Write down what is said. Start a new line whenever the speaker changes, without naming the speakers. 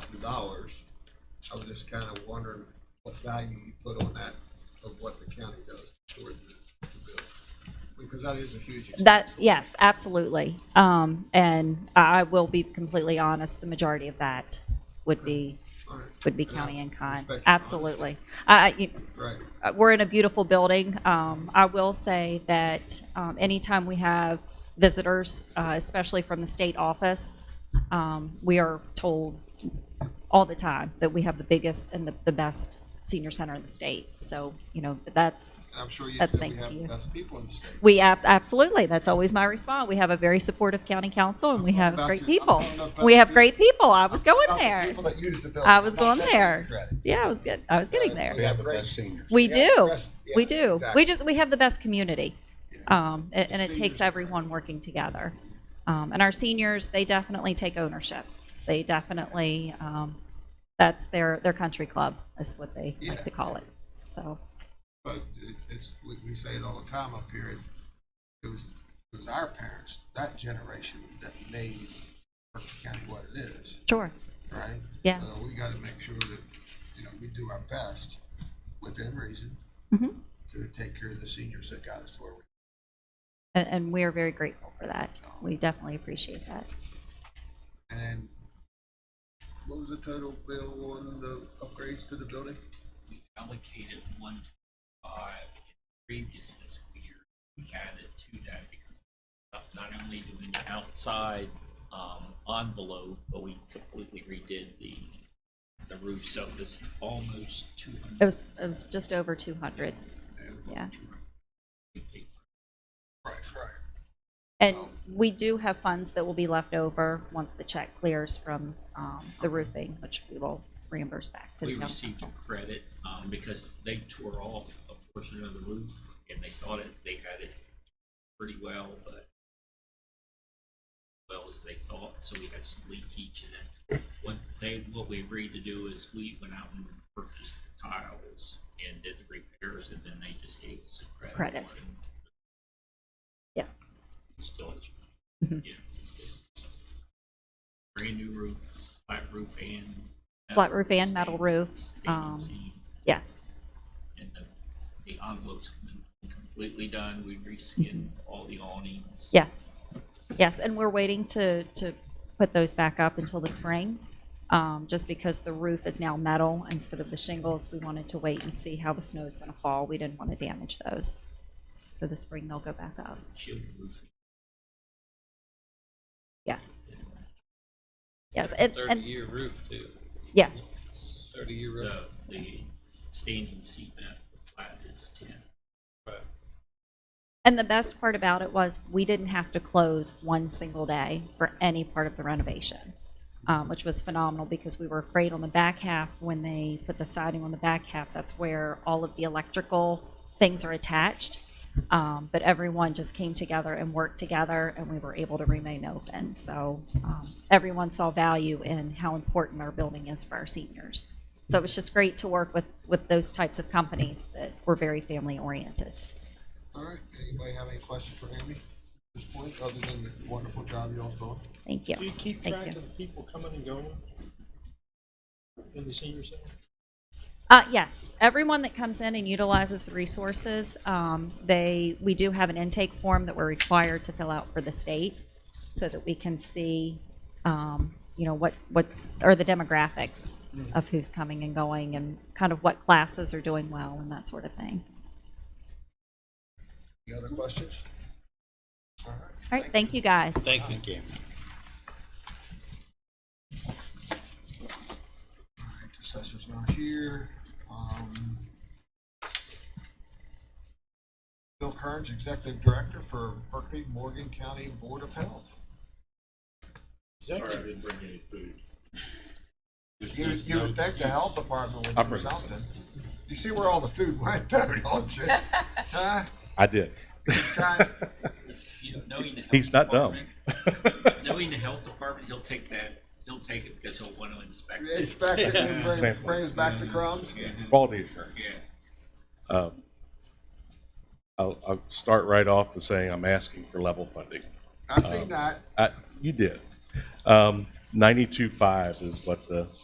thousand dollars. I was just kind of wondering what value you put on that of what the county does for the, the bill. Because that is a huge. expense.
That, yes, absolutely. Um, and I I will be completely honest, the majority of that would be,
All right,
would be
And I
county and con.
respect your honesty.
Absolutely. I, I- you-
Right,
uh, we're in a beautiful building. Um, I will say that um, anytime we have visitors, uh, especially from the state office, um, we are told all the time that we have the biggest and the, the best senior center in the state. So, you know, that's,
I'm sure you
That's
said we
thanks
have
to
the
you.
best people in the state.
we ab- absolutely, that's always my response. We have a very supportive county council and we have
About
great
you.
people.
I don't know about
We have
you.
great people. I was
I'm talking
going
about the
there.
People that use the bill.
I was
Not
going
that
there.
credit.
Yeah, I was good. I was getting there.
We have the best seniors.
Yeah,
We
the
do.
rest-
We
yes,
do.
exactly.
We just, we have the best community. Um, a- and, it takes
seniors are
everyone working together. Um, and our seniors, they definitely take ownership. They definitely, um, that's their, their country club is what they
Yeah.
like to call it. So,
But it, it's, we, we say it all the time up here, it- it was, it was our parents, that generation that made Berkeley County what it is,
sure.
right?
Yeah.
So we gotta make sure that, you know, we do our best within reason
Mhm.
to take care of the seniors that got us where we
And, and we are very grateful for that. We definitely appreciate that.
And then, what was the total bill on the upgrades to the building?
we allocated one twenty-five in the previous fiscal year. We added to that because not- not only do we need outside, um, envelope, but we completely redid the, the roof, so it was almost two
It
hundred.
was, it was just over two hundred. Yeah.
Right, right.
And we do have funds that will be left over once the check clears from, um, the roofing, which we will reimburse back to the
We
council.
received a credit, um, because they tore off a portion of the roof and they thought it, they had it pretty well, but well as they thought, so we had some leakage in it. What they, what we agreed to do is we went out and purchased the tiles and did the repairs and then they just gave us a credit.
Credit.
for it.
Yes.
Installation.
Mhm.
Yeah. So, Brand new roof, flat roof and.
Flat roof and metal
stain-
roof,
stain and
um,
seam.
Yes.
And the, the envelope's completely done. We reskinned all the awnings.
Yes. Yes. And we're waiting to, to put those back up until the spring. Um, just because the roof is now metal instead of the shingles, we wanted to wait and see how the snow is going to fall. We didn't want to damage those. So the spring they'll go back up.
Shield roofing.
Yes. Yes. And, and
Thirty-year roof too,
yes.
thirty-year roof.
The, the standing seat mat, the flat is ten.
Right.
And the best part about it was we didn't have to close one single day for any part of the renovation, um, which was phenomenal because we were afraid on the back half when they put the siding on the back half, that's where all of the electrical things are attached. Um, but everyone just came together and worked together, and we were able to remain open. So um, everyone saw value in how important our building is for our seniors. So it was just great to work with with those types of companies that were very family oriented.
All right, anybody have any questions for Amy at this point, other than the wonderful job y'all's doing?
Thank you.
Do you keep
Thank
track
you.
of the people coming and going in the senior center?
Uh, yes, everyone that comes in and utilizes the resources, um, they, we do have an intake form that we're required to fill out for the state so that we can see, um, you know, what, what are the demographics
Mm-hmm.
of who's coming and going and kind of what classes are doing well and that sort of thing.
Any other questions? All right.
All right, thank you guys.
Thank you.
All right, the Assessor's not here. Um, Bill Kearns, Executive Director for Berkeley Morgan County Board of Health.
Executive,
didn't bring any food.
You, you would think the health department would do something. You see where all the food went, though, don't you? Huh?
I did.
Trying-
You- knowing the health
He's not dumb.
department- Knowing the health department, he'll take that, he'll take it because he'll want to inspect it.
Inspect it and bring,
Exactly.
bring us back the crumbs?
Quality assurance.
Yeah.
Um, I'll, I'll start right off with saying I'm asking for level funding.
Uh,
I seen that.
I, you did. Um, 92.5 is what the